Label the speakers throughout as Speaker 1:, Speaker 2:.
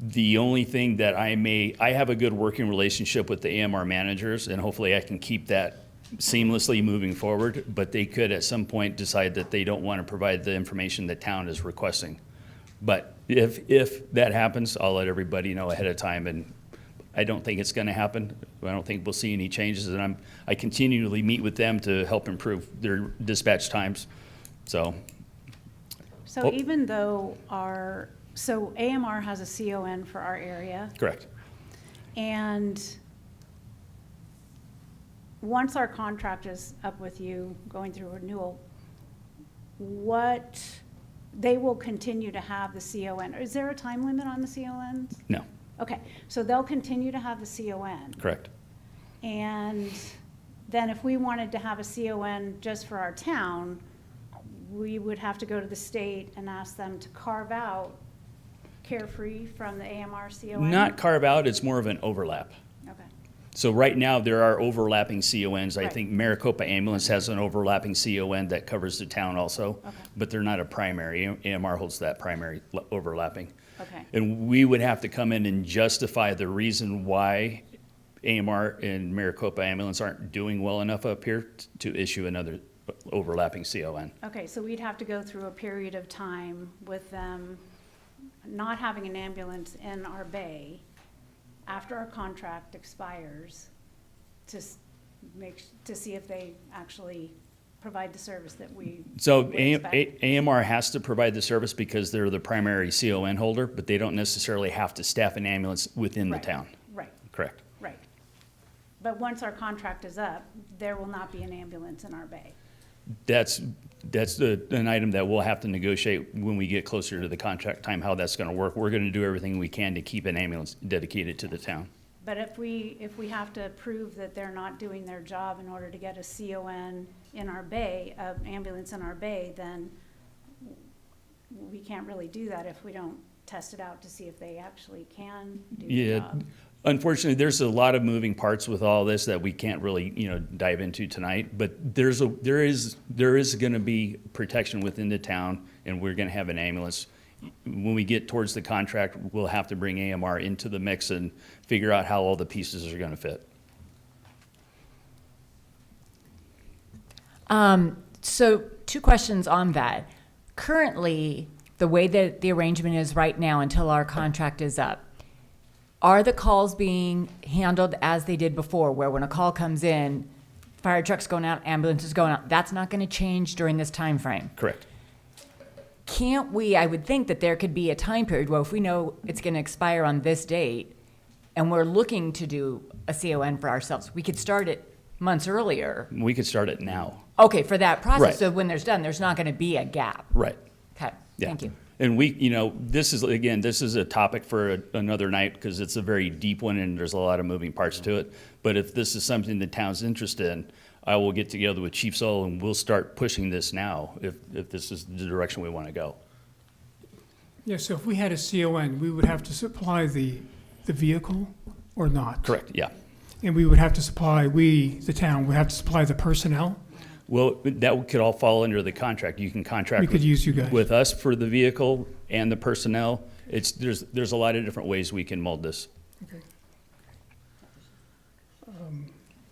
Speaker 1: The only thing that I may, I have a good working relationship with the AMR managers, and hopefully I can keep that seamlessly moving forward, but they could at some point decide that they don't want to provide the information the town is requesting. But if, if that happens, I'll let everybody know ahead of time, and I don't think it's going to happen. I don't think we'll see any changes, and I'm, I continually meet with them to help improve their dispatch times. So,
Speaker 2: So
Speaker 1: Well-
Speaker 2: even though our, so AMR has a CON for our area,
Speaker 1: correct.
Speaker 2: and once our contract is up with you, going through renewal, what, they will continue to have the CON. Is there a time limit on the CONs?
Speaker 1: No,
Speaker 2: Okay, so they'll continue to have the CON.
Speaker 1: correct.
Speaker 2: And then if we wanted to have a CON just for our town, we would have to go to the state and ask them to carve out carefree from the AMR CON?
Speaker 1: Not carve out, it's more of an overlap.
Speaker 2: Okay,
Speaker 1: So right now, there are overlapping CONs. I
Speaker 2: Right.
Speaker 1: think Maricopa Ambulance has an overlapping CON that covers the town also,
Speaker 2: Okay.
Speaker 1: but they're not a primary. AMR holds that primary l- overlapping.
Speaker 2: okay,
Speaker 1: And we would have to come in and justify the reason why AMR and Maricopa Ambulance aren't doing well enough up here t- to issue another overlapping CON.
Speaker 2: okay, so we'd have to go through a period of time with them not having an ambulance in our bay after our contract expires to s- make, to see if they actually provide the service that we
Speaker 1: So
Speaker 2: would
Speaker 1: A-
Speaker 2: expect.
Speaker 1: A- AMR has to provide the service because they're the primary CON holder, but they don't necessarily have to staff an ambulance within the
Speaker 2: Right,
Speaker 1: town.
Speaker 2: Right.
Speaker 1: Correct.
Speaker 2: Right. But once our contract is up, there will not be an ambulance in our bay.
Speaker 1: That's, that's the, an item that we'll have to negotiate when we get closer to the contract time, how that's gonna work. We're gonna do everything we can to keep an ambulance dedicated to the town.
Speaker 2: But if we, if we have to prove that they're not doing their job in order to get a CON in our bay, an ambulance in our bay, then we can't really do that if we don't test it out to see if they actually can do the
Speaker 1: Yeah,
Speaker 2: job.
Speaker 1: unfortunately, there's a lot of moving parts with all this that we can't really, you know, dive into tonight. But there's a, there is, there is gonna be protection within the town, and we're gonna have an ambulance. When we get towards the contract, we'll have to bring AMR into the mix and figure out how all the pieces are gonna fit.
Speaker 3: Um, so two questions on that. Currently, the way that the arrangement is right now until our contract is up, are the calls being handled as they did before, where when a call comes in, fire trucks going out, ambulances going out? That's not going to change during this time frame.
Speaker 1: Correct.
Speaker 3: Can't we? I would think that there could be a time period where if we know it's going to expire on this date, and we're looking to do a CON for ourselves, we could start it months earlier.
Speaker 1: We could start it now.
Speaker 3: Okay, for that
Speaker 1: Right.
Speaker 3: process, so when there's done, there's not gonna be a gap.
Speaker 1: Right.
Speaker 3: Okay,
Speaker 1: Yeah.
Speaker 3: thank you.
Speaker 1: And we, you know, this is, again, this is a topic for a- another night because it's a very deep one and there's a lot of moving parts to it. But if this is something the town's interested in, I will get together with Chief Soul and we'll start pushing this now if, if this is the direction we want to go.
Speaker 4: Yeah, so if we had a CON, we would have to supply the, the vehicle or not?
Speaker 1: Correct, yeah.
Speaker 4: And we would have to supply, we, the town, would have to supply the personnel?
Speaker 1: Well, that could all fall under the contract. You can contract.
Speaker 4: We could
Speaker 1: with-
Speaker 4: use you guys.
Speaker 1: With us for the vehicle and the personnel. It's, there's, there's a lot of different ways we can mold this.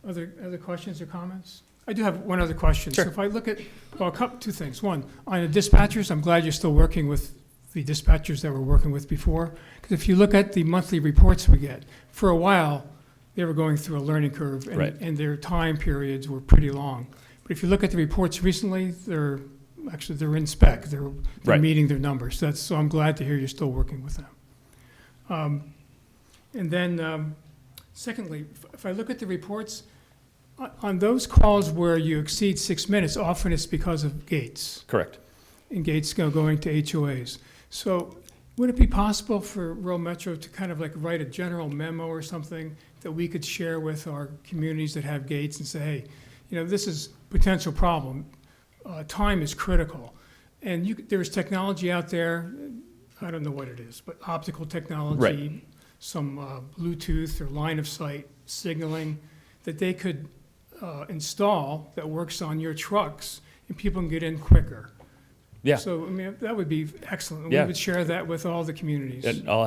Speaker 4: Other, other questions or comments? I do have one other question. So
Speaker 1: Sure.
Speaker 4: if I look at, well, a couple, two things. One, on the dispatchers, I'm glad you're still working with the dispatchers that we're working with before. Because if you look at the monthly reports we get, for a while, they were going through a learning curve. and-
Speaker 1: Right.
Speaker 4: And their time periods were pretty long. But if you look at the reports recently, they're, actually, they're in spec. They're, they're
Speaker 1: Right.
Speaker 4: meeting their numbers. That's, so I'm glad to hear you're still working with them. Um, And then, um, secondly, if- if I look at the reports, on- On those calls where you exceed six minutes, often it's because of gates,
Speaker 1: Correct.
Speaker 4: and gates go going to HOAs. So would it be possible for rural Metro to kind of like write a general memo or something that we could share with our communities that have gates and say, hey, you know, this is potential problem. Uh, Time is critical. And you, could- there's technology out there, I don't know what it is, but optical technology, some uh, Bluetooth or line of sight signaling that they could uh, install that works on your trucks and people can get in quicker.
Speaker 1: Yeah.
Speaker 4: So, I mean, that would be excellent.
Speaker 1: Yeah.
Speaker 4: We would share that with all the communities.
Speaker 1: And I'll